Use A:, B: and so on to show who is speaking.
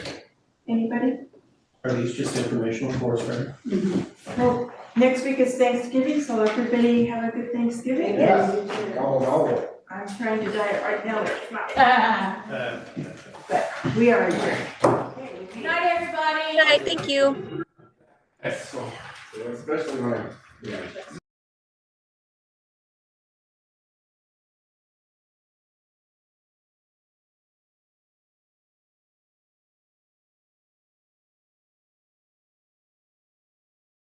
A: Anybody?
B: Are these just informational for us, right?
A: Well, next week is Thanksgiving, so everybody have a good Thanksgiving.
C: Yes.
D: Oh, no.
A: I'm trying to diet right now, there's not,
C: Ah,
B: Uh,
A: we are adjourned.
C: Good night, everybody.
E: Good night, thank you.
D: Especially when, I- yeah.